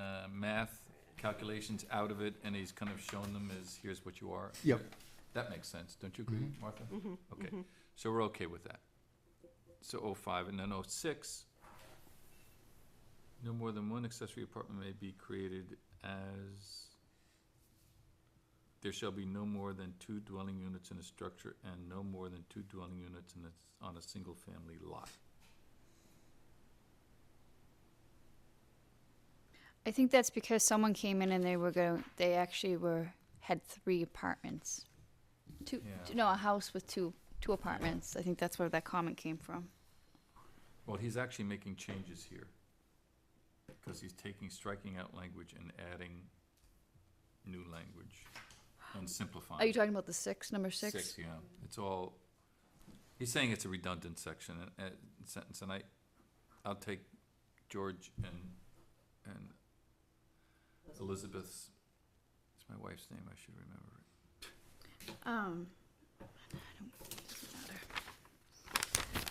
uh, math calculations out of it, and he's kind of shown them as, here's what you are. Yep. That makes sense, don't you agree, Martha? Okay, so we're okay with that. So oh five, and then oh six, no more than one accessory apartment may be created as, there shall be no more than two dwelling units in a structure and no more than two dwelling units in a, on a single-family lot. I think that's because someone came in and they were going. They actually were had three apartments, two. Yeah. No, a house with two two apartments. I think that's where that comment came from. Well, he's actually making changes here. Because he's taking, striking out language and adding new language and simplifying. Are you talking about the six number six? Six, yeah, it's all, he's saying it's a redundant section, and, and sentence, and I, I'll take George and, and Elizabeth's, it's my wife's name, I should remember it. Um, I don't, doesn't matter.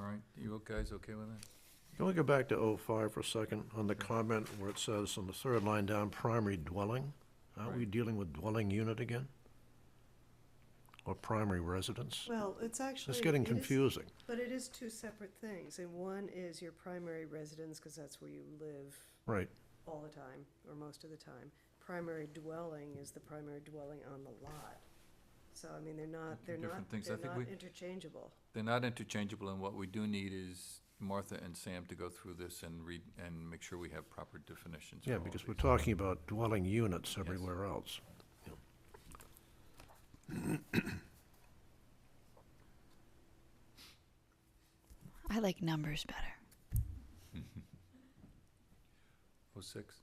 All right, you guys okay with that? Can we go back to 05 for a second on the comment where it says on the third line down, primary dwelling? Aren't we Right. dealing with dwelling unit again? Or primary residence? Well, it's actually. It's getting it is- confusing. But it is two separate things, and one is your primary residence, because that's where you live Right, all the time, or most of the time. Primary dwelling is the primary dwelling on the lot. So, I mean, they're not, They're they're two different not, things. I think they're not we- interchangeable. They're not interchangeable, and what we do need is Martha and Sam to go through this and read, and make sure we have proper definitions. for yeah, all because of we're these. talking about dwelling units Yes. everywhere else. Yeah. I like numbers better. Oh, six?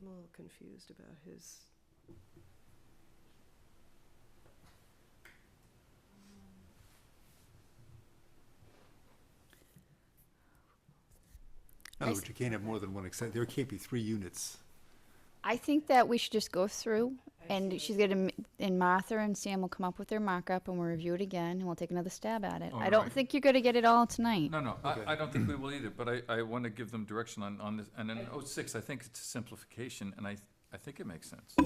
I'm a little confused about his. In other I s- words, Oh, you can't have more than one accessory, there can't be three units. I think that we should just go through, and she's gonna, m- and Martha and Sam will come up with their markup, and we'll review it again, and we'll take another stab at it. I don't Alright. think you're gonna get it all tonight. No, no, Okay. I, I don't think we will either, but I, I want to give them direction on, on this, and in oh, six, I think it's a simplification, and I, I think it makes sense.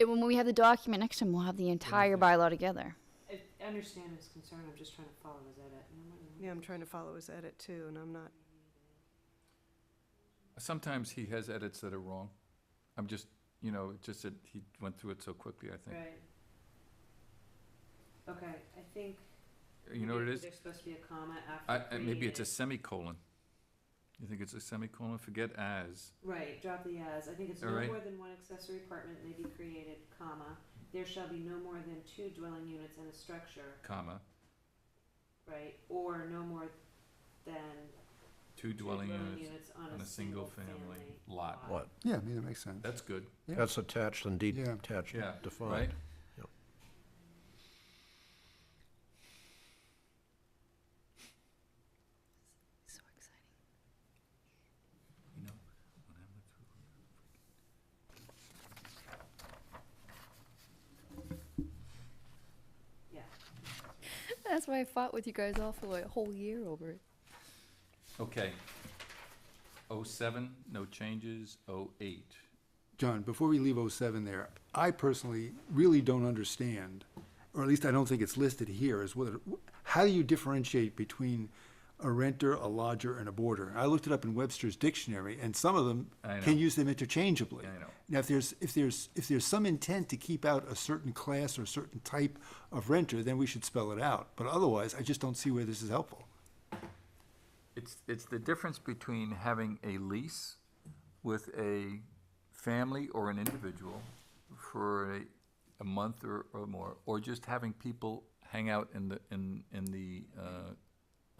And when we have the document next time, we'll have the entire bylaw together. I I understand his concern, I'm just trying to follow his edit. and I'm like, Yeah, I'm trying to follow his edit too, and I'm not, Sometimes he has edits that are wrong. I'm just, you know, it's just that he went through it so quickly, I think. Right. Okay, I think. You know what it is? There's supposed to be a comma after. I, I- maybe it's a created. semicolon. You think it's a semicolon? Forget as. Right, drop the as, I think it's All no right. more than one accessory apartment may be created, comma, there shall be no more than two dwelling units in a structure, comma, right? Or no more than two two dwelling units on on a single family lot. What? Yeah, I mean, that makes sense. That's good, Yeah. That's attached and Yeah. detached, yeah, right? defined. Yep. So exciting. You know, when I went Yeah, That's why I fought with you guys all for like a whole year over it. through- Okay. Oh seven, no changes, oh eight. John, before we leave 07 there, I personally really don't understand, or at least I don't think it's listed here, is whether, how do you differentiate between a renter, a lodger, and a boarder? I looked it up in Webster's dictionary, and some of them I can know. use them interchangeably. I know. Now, if there's, if there's, if there's some intent to keep out a certain class or a certain type of renter, then we should spell it out. But otherwise, I just don't see where this is helpful. It's, it's the difference between having a lease with a family or an individual for a, a month or, or more, or just having people hang out in the, in, in the, uh,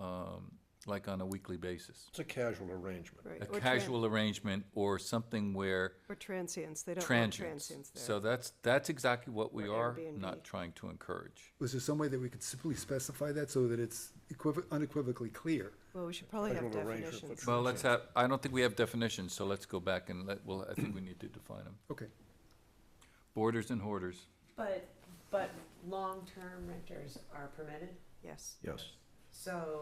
um, like on a weekly basis. It's a casual arrangement. right. A or tran- casual arrangement or something where Or transients, they don't want transients. transients there. So that's, that's exactly what we Or are not Airbnb. trying to encourage. Was there some way that we could simply specify that so that it's equiv- unequivocally clear? Well, we should probably Like have an arranger for definitions. Well, let's have, I don't think we have definitions, so let's go back and let, well, I think we need to define them. Okay. Boarders and hoarders. but, but long-term renters are permitted, Yes. Yes. so